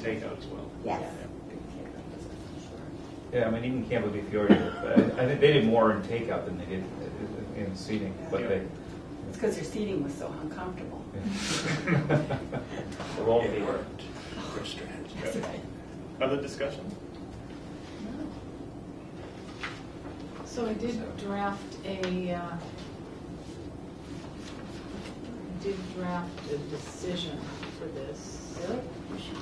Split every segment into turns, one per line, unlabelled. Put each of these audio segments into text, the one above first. takeout as well.
Yes.
Yeah, I mean, even Campo Di Fiore, uh, I think they did more in takeout than they did in seating, but they.
It's because your seating was so uncomfortable.
They're all
It
favorite.
worked. Good strategy.
That's right.
Other discussion?
So I did draft a, uh, did draft a decision for this.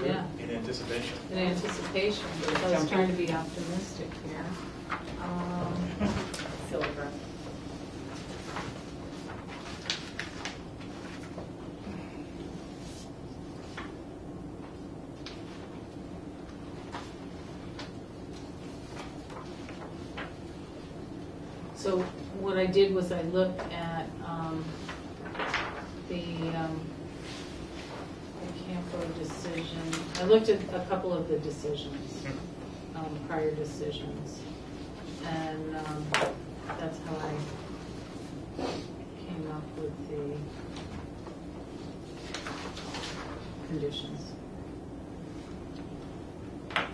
Yeah,
In anticipation.
in anticipation, because I was trying to be optimistic here. Um,
Silver.
So what I did was I looked at um, the um, the Campo decision. I looked at a couple of the decisions,
Hmm.
um, prior decisions. And um, that's how I came up with the conditions.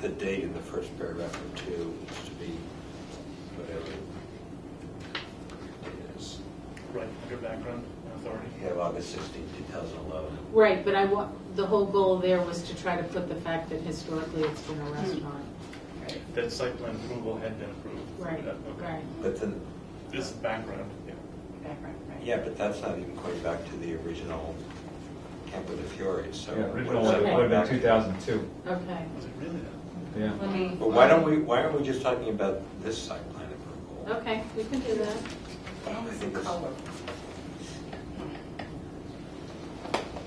The date in the first paragraph or two needs to be whatever it is.
Right, under background authority.
You have August 16, 2011.
Right, but I wa, the whole goal there was to try to put the fact that historically it's been a restaurant.
That site plan approval had been approved.
Right,
Yeah, okay.
right.
But then,
This is background, yeah.
Background, right.
yeah, but that's not even going back to the original Campo de Fiore, so.
Yeah, original
what
one
is
would
that
have been
back to?
2002,
Okay.
Was it really that?
yeah.
Let me,
But why don't we, why aren't we just talking about this site plan approval?
okay, we can do that.
I
That was a
think it's-
color.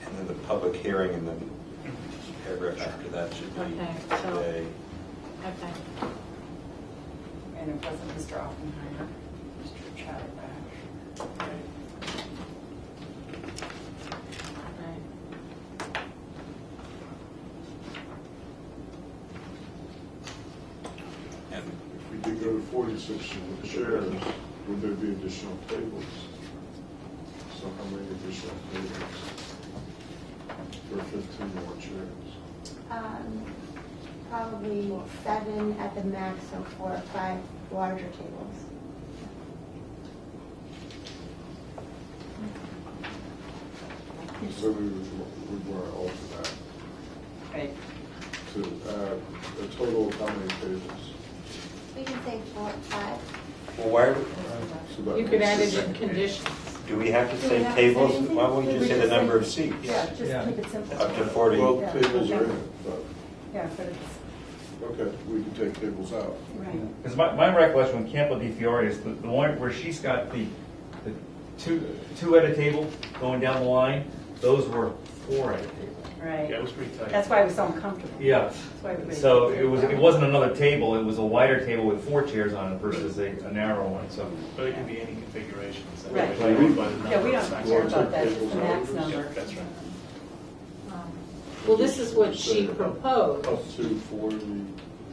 And then the public hearing and then paragraph after that should be
Okay, so-
today.
Okay.
And it wasn't Mr. Oppenheimer, Mr. Chatterback.
Right.
And
If we did go to forty-six chairs, would there be additional tables? So how many additional tables? For fifteen more chairs?
Um, Probably seven at the max, so four or five larger tables.
So we would, would want to alter that
Right.
to add a total of how many tables?
We can say four, five.
Well, why,
So that
You could add
makes-
it in conditions.
do we have to
Do we
say
have to say
tables?
anything?
Why won't we
We
just say
just
the number of
say-
seats?
Yeah,
Yeah.
just keep it simple.
Up to 40.
Well, tables are in it, but,
Yeah, but it's,
okay, we can take tables out.
right.
Because my, my recollection when Campo di Fiore is the, the one where she's got the, the two, two at a table going down the line, those were four at a table.
Right.
Yeah, it was pretty tight.
That's why it was so uncomfortable.
Yeah,
That's why everybody-
so it was, it wasn't another table, it was a wider table with four chairs on it versus a, a narrow one, so.
But it can be any configuration. so
Right.
it's limited by the
Yeah, we
number of
don't
factors.
Well,
care about that,
it's
it's the
a-
max
Yeah,
number.
that's right.
Um, Well, this is what she proposed.
uh, Up to forty,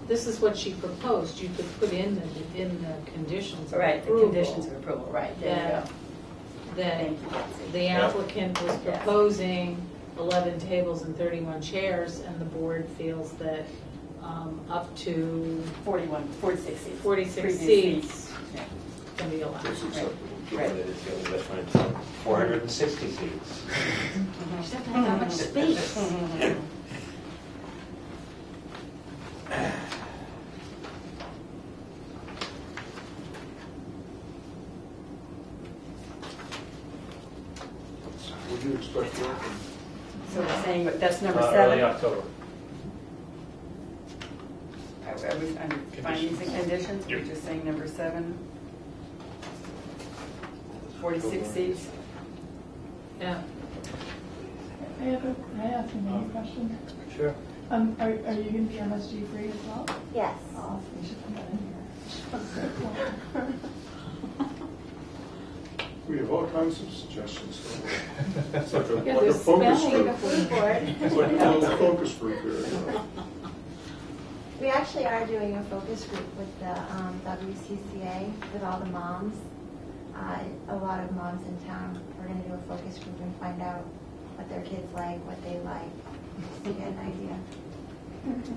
This is what she proposed. You could put in the, in the conditions of
Right, the
approval.
conditions of approval, right, there
That,
you go.
that
Thank you, Betsy.
the applicant was
Yeah.
proposing 11 tables and 31 chairs, and the board feels that um, up to
41, 46 seats.
46
Previous
seats.
Yeah.
can be allowed.
that's acceptable.
Right.
That's when it's like 460 seats.
She doesn't have that much space.
Would you expect that?
So we're saying, that that's number
Uh,
seven.
Early October.
I I was, under findings and conditions, we're just saying number seven. 46 seats.
Yeah.
I have a, I have another question.
Sure.
Um, are, are you gonna be MSG free as well?
Yes.
Awesome, you should come down here.
We have all kinds of suggestions. It's like a, like
Yeah,
a
there's
focus
spelling.
group.
The food board.
It's like a little focus group here, you know.
We actually are doing a focus group with the um, WCCA, with all the moms. Uh, A lot of moms in town, we're going to do a focus group and find out what their kids like, what they like, just to get an idea.